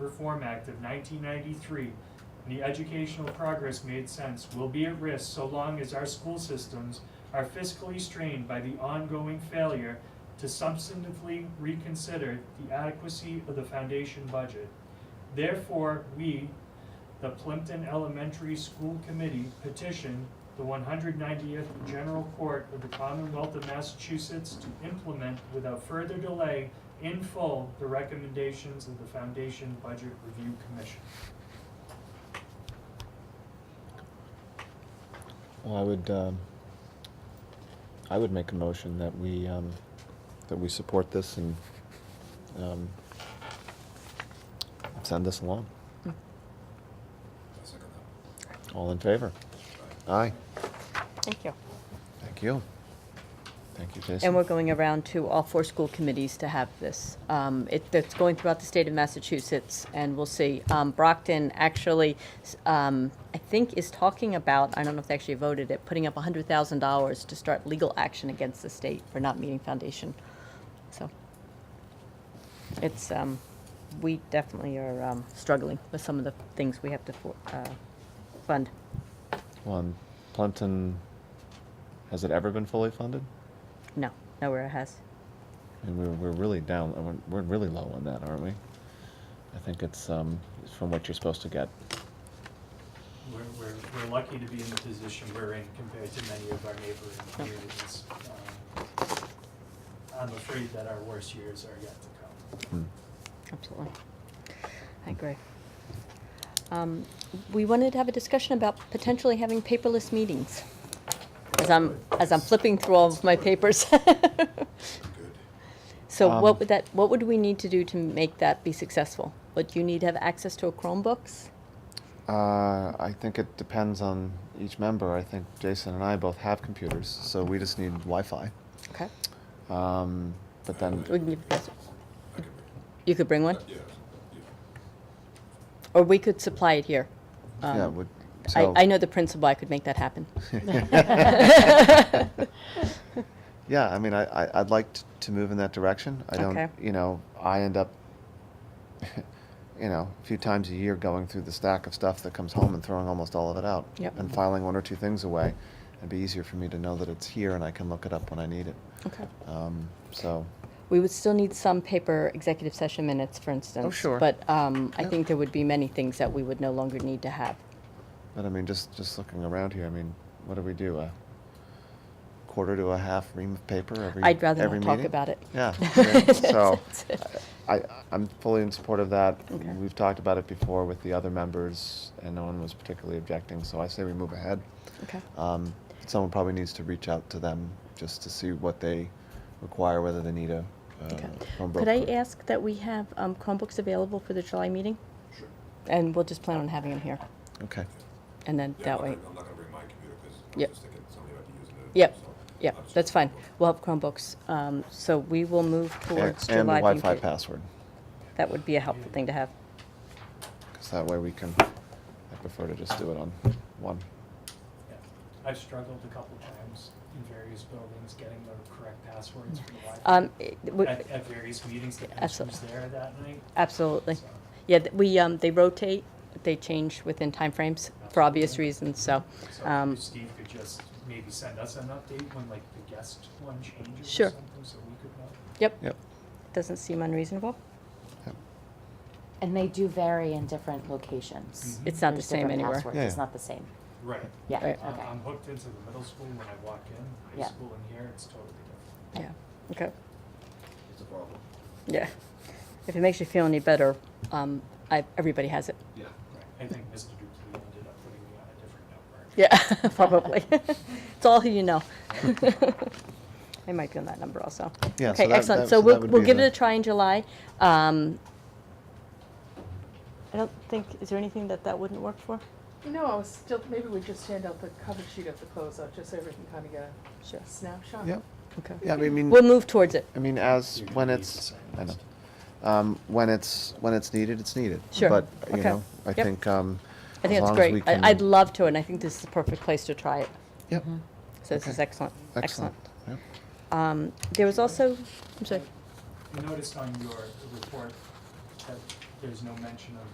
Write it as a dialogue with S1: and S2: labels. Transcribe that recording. S1: Reform Act of nineteen ninety-three, and the educational progress made sense will be at risk so long as our school systems are fiscally strained by the ongoing failure to substantively reconsider the adequacy of the foundation budget. Therefore, we, the Plimpton Elementary School Committee petition the one hundred ninetieth General Court of the Commonwealth of Massachusetts to implement without further delay in full the recommendations of the Foundation Budget Review Commission.
S2: Well, I would, um, I would make a motion that we, um, that we support this and, um, send this along.
S3: I'll second
S2: All in favor?
S3: that.
S2: Aye.
S4: Thank you.
S2: Thank you. Thank you, Jason.
S4: And we're going around to all four school committees to have this. Um, It, that's going throughout the state of Massachusetts, and we'll see. Um, Brockton actually, s- um, I think, is talking about, I don't know if they actually voted it, putting up $100,000 to start legal action against the state for not meeting foundation. So it's, um, we definitely are um, struggling with some of the things we have to for- uh, fund.
S2: Well, and Plimpton, has it ever been fully funded?
S4: No, nowhere it has.
S2: And we're, we're really down, uh, we're, we're really low on that, aren't we? I think it's, um, from what you're supposed to get.
S1: We're, we're, we're lucky to be in the position we're in compared to many of our neighboring communities. Um, I'm afraid that our worst years are yet to come.
S2: Hmm.
S4: Absolutely. I agree. Um, We wanted to have a discussion about potentially having paperless meetings. As I'm, as I'm flipping through all of my papers.
S3: Good.
S4: So
S2: Um,
S4: what would that, what would we need to do to make that be successful? Would you need to have access to a Chromebooks?
S2: Uh, I think it depends on each member. I think Jason and I both have computers, so we just need Wi-Fi.
S4: Okay.
S2: Um, but then,
S4: We can give, yes,
S3: I can make-
S4: you could bring one,
S3: Yeah, yeah.
S4: or we could supply it here. Um,
S2: yeah, would,
S4: I,
S2: so,
S4: I know the principal, I could make that happen.
S2: yeah, I mean, I, I, I'd like t- to move in that direction. I don't,
S4: Okay.
S2: you know, I end up, you know, a few times a year going through the stack of stuff that comes home and throwing almost all of it out.
S4: Yep.
S2: And filing one or two things away. It'd be easier for me to know that it's here and I can look it up when I need it.
S4: Okay.
S2: Um, so,
S4: We would still need some paper executive session minutes, for instance.
S2: Oh, sure.
S4: But um, I
S2: Yeah.
S4: think there would be many things that we would no longer need to have.
S2: But I mean, just just looking around here, I mean, what do we do? A quarter to a half ream of paper every.
S4: I'd rather
S2: every
S4: not talk
S2: meeting?
S4: about it.
S2: Yeah. yeah. so,
S4: That's it.
S2: I I- I'm fully in support of that.
S4: Okay.
S2: We've talked about it before with the other members, and no one was particularly objecting. So I say we move ahead.
S4: Okay,
S2: Um, someone probably needs to reach out to them just to see what they require, whether they need a. Uh,
S4: okay.
S2: Chromebook
S4: Could I
S2: or-
S4: ask that we have um, Chromebooks available for the July meeting?
S3: Sure.
S4: And we'll just plan on having them here,
S2: Okay.
S4: and then
S3: Yeah,
S4: that
S3: I'm
S4: way.
S3: not gonna- I'm not gonna bring my computer because I'm
S4: Yep.
S3: just thinking somebody might be using it.
S4: Yep,
S3: so
S4: yep,
S3: I'm just
S4: that's fine.
S3: gonna-
S4: We'll have Chromebooks. Um, So we will move
S2: And, and
S4: towards
S2: the
S4: July. being
S2: Wi-Fi
S4: pa-
S2: password,
S4: That would be a helpful thing to have.
S2: because that way we can. I prefer to just do it on one.
S1: Yeah. I've struggled a couple times in various buildings getting the correct passwords for the Wi-Fi.
S4: Um, it- w-
S1: At, at various meetings, the person was there
S4: Absolutely.
S1: that night.
S4: Absolutely.
S1: so.
S4: Yeah, th- we, um, they rotate, they change within timeframes for obvious
S1: Absolutely.
S4: reasons, so,
S1: So
S4: um,
S1: if Steve could just maybe send us an update when like the guest one changes or
S4: Sure.
S1: something, so we could know.
S4: yep,
S2: Yep.
S4: doesn't seem unreasonable.
S2: Yep.
S5: And they do vary in different locations.
S1: Mhm.
S4: It's not the
S5: There's
S4: same
S5: different
S4: anywhere.
S5: passwords.
S2: Yeah,
S5: It's
S2: yeah.
S5: not the same.
S1: Right.
S5: Yeah,
S4: Right.
S1: I'm,
S5: okay.
S1: I'm hooked into the middle school when I walk in, high
S5: Yeah.
S1: school in here, it's totally different.
S4: Yeah, okay,
S3: It's a problem.
S4: yeah. If it makes you feel any better, um, I, everybody has it.
S3: Yeah.
S1: I think Mr. Dupuy ended up putting me on a different number.
S4: Yeah, probably. It's all who you know. I might be on that number also.
S2: Yeah, so
S4: Okay,
S2: that-
S4: excellent.
S2: that- so
S4: So
S2: that
S4: we'll,
S2: would
S4: we'll
S2: be
S4: give it
S2: the-
S4: a try in July. Um, I don't think, is there anything that that wouldn't work for?
S6: No, I was still, maybe we just hand out the cover sheet at the closeout, just so everyone kind of get
S4: Sure.
S6: a snapshot.
S2: Yep.
S4: Okay.
S2: Yeah, I mean,
S4: We'll move towards it.
S2: I mean, as when it's, I know, um, when it's when it's needed, it's needed.
S4: Sure.
S2: But you
S4: Okay.
S2: know, I
S4: Yep.
S2: think um,
S4: I think
S2: as
S4: that's
S2: long As we
S4: great.
S2: can,
S4: I- I'd love to, and I think this is the perfect place to try it.
S2: Yep.
S4: So this is
S2: Okay.
S4: excellent, excellent.
S2: Yep.
S4: Um, There was also, I'm sorry,
S1: I noticed on your report that there's no mention of